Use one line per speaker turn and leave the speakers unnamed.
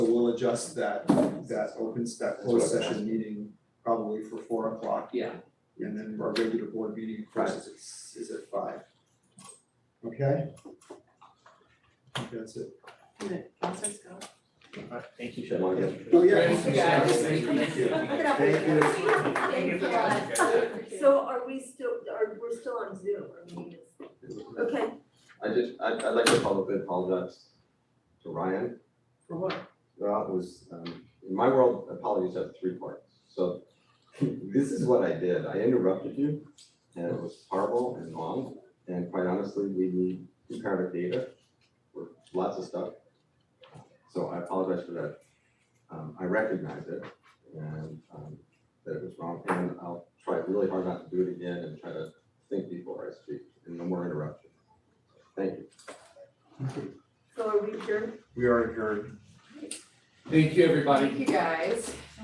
adjust that, that open, that
what I
closed session meeting probably for four o'clock.
Yeah.
And then our regular board meeting, of course, is, is at five. Okay? I think That's it.
Thank you,
Come on, yeah.
Oh, yeah.
Thank you, guys.
Thank you.
Thank you. Thank you.
Thank
So are we still, are, we're still on Zoom, or we just, okay,
I just, I, I'd like to publicly apologize to Ryan.
For what?
Well, it was, um, in my world, apologies have three parts. So this is what I did. I interrupted you and it was horrible and long. And quite honestly, we need comparative data for lots of stuff. So I apologize for that. Um, I recognize it and, um, that it was wrong. And I'll try really hard not to do it again and try to think before I speak and no more interruptions. Thank you.
so are we adjourned?
We are adjourned.
Thank you, everybody.
you, guys.